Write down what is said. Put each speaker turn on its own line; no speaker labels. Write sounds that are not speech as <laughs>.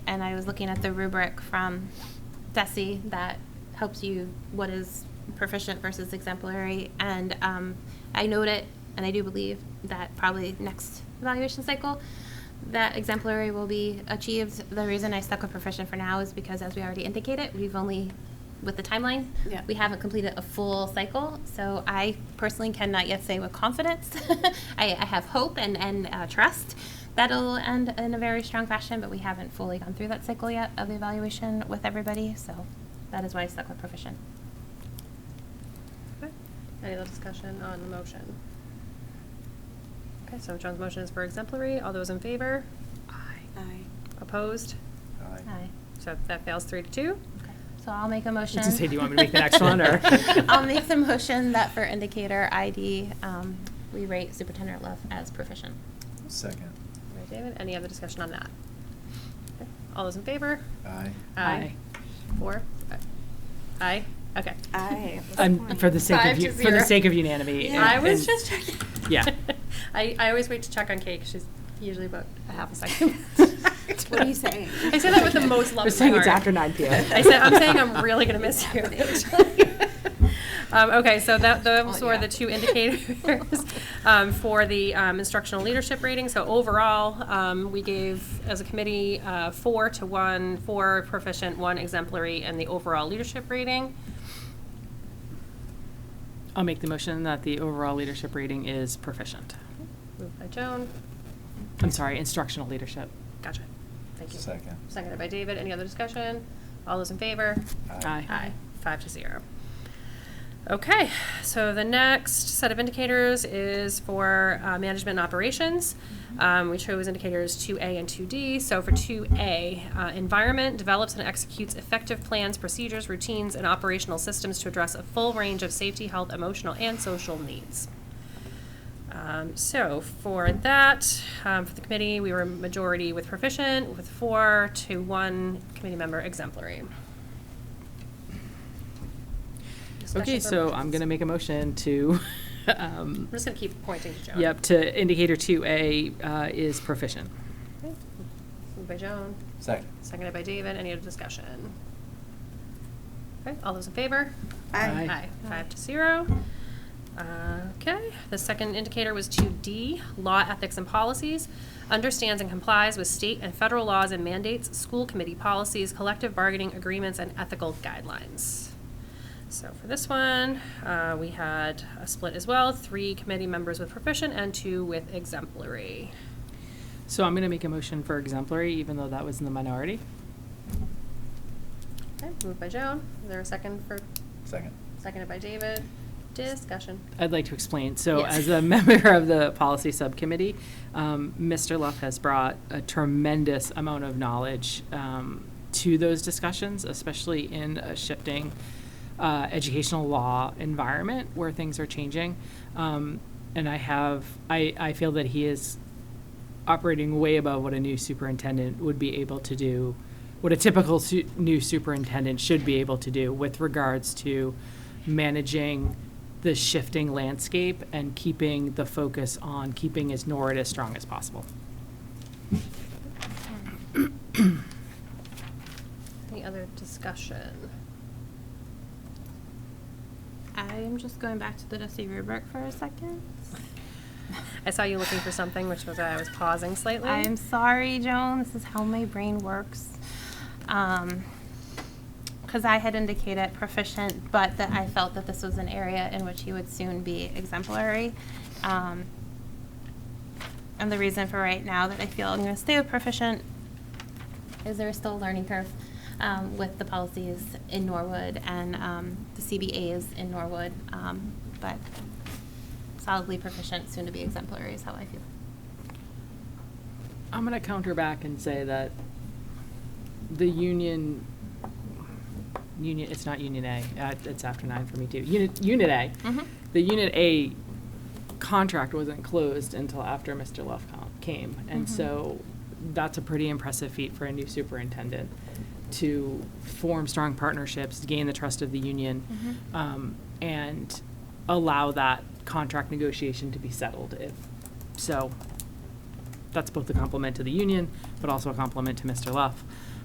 and I was looking at the rubric from Desi that helps you what is proficient versus exemplary, and um, I noted, and I do believe that probably next evaluation cycle, that exemplary will be achieved. The reason I stuck with proficient for now is because, as we already indicated, we've only with the timeline,
Yeah.
we haven't completed a full cycle. So I personally cannot yet say with confidence. <laughs> I, I have hope and, and uh, trust that it'll end in a very strong fashion, but we haven't fully gone through that cycle yet of evaluation with everybody. So that is why I stuck with proficient.
Okay. Any other discussion on the motion? Okay, so John's motion is for exemplary. All those in favor? Aye.
Aye.
Opposed?
Aye.
So that fails three to two.
Okay. So I'll make a motion.
say, do you want me to make the next one, or-
<laughs> I'll make the motion that for indicator ID, um, we rate Superintendent Love as proficient.
Second.
All right, David, any other discussion on that? Okay, All those in favor?
Aye.
Aye. Four? Aye? Okay.
Aye.
<laughs>
I'm, for the sake
Five
of,
to
u- for the
zero.
sake of unanimity.
Yeah.
and-
I was
and-
just checking.
yeah.
<laughs> I, I always wait to check on Kate, 'cause she's usually about a half a
<laughs>
second.
What are you saying?
I say that with the most love
We're
in
saying
my
it's
heart.
after 9 p.m.
I said, I'm saying
<laughs>
I'm really gonna miss you.
Happening.
<laughs> Um, okay, so that, those
Oh,
were
yeah.
the two indicators, <laughs> um, for the, um, instructional leadership rating. So overall, um, we gave, as a committee, uh, four to one, four proficient, one exemplary, and the overall leadership rating.
I'll make the motion that the overall leadership rating is proficient.
Moved by Joan.
I'm sorry, instructional leadership.
Gotcha. Thank you.
Second.
Seconded by David. Any other discussion? All those in favor?
Aye.
Aye. Five to zero. Okay, so the next set of indicators is for uh, management and operations. Um, We chose indicators 2A and 2D. So for 2A, uh, environment develops and executes effective plans, procedures, routines, and operational systems to address a full range of safety, health, emotional, and social needs. Um, So for that, um, for the committee, we were majority with proficient, with four to one committee member exemplary.
Okay,
Discussions or
so I'm
motions?
going to make a motion to, <laughs> um,
I'm just gonna keep pointing to Joan.
yep, to indicator 2A uh, is proficient.
Okay. Moved by Joan,
Second.
seconded by David. Any other discussion? Okay, all those in favor?
Aye.
Aye, five to zero. Uh, Okay, the second indicator was 2D, Law, Ethics, and Policies. Understands and complies with state and federal laws and mandates, school committee policies, collective bargaining agreements, and ethical guidelines. So for this one, uh, we had a split as well, three committee members with proficient and two with exemplary.
So I'm going to make a motion for exemplary, even though that was in the minority.
Okay, moved by Joan. Is there a second for,
Second.
seconded by David? Discussion.
I'd like to explain. So
Yes.
as a <laughs> member of the policy subcommittee, um, Mr. Luff has brought a tremendous amount of knowledge um, to those discussions, especially in a shifting uh, educational law environment where things are changing. Um, And I have, I, I feel that he is operating way above what a new superintendent would be able to do, what a typical su- new superintendent should be able to do with regards to managing the shifting landscape and keeping the focus on keeping his NORAD as strong as possible.
Any other discussion?
I'm just going back to the Desi rubric for a second.
I saw you looking for something, which was why I was pausing slightly.
I'm sorry, Joan. This is how my brain works. Um, because I had indicated proficient, but that I felt that this was an area in which he would soon be exemplary. Um, and the reason for right now that I feel I'm going to stay with proficient is there still a learning curve um, with the policies in Norwood and um, the CBAs in Norwood, um, but solidly proficient, soon to be exemplary is how I feel.
I'm going to counter back and say that the union, union, it's not Union A, uh, it's after nine for me too. Unit, Unit A.
Mhm.
The Unit A contract wasn't closed until after Mr. Luff com- came. And
Mhm.
so that's a pretty impressive feat for a new superintendent to form strong partnerships, gain the trust of the union,
Mhm.
um, and allow that contract negotiation to be settled if, so that's both a compliment to the union, but also a compliment to Mr. Luff.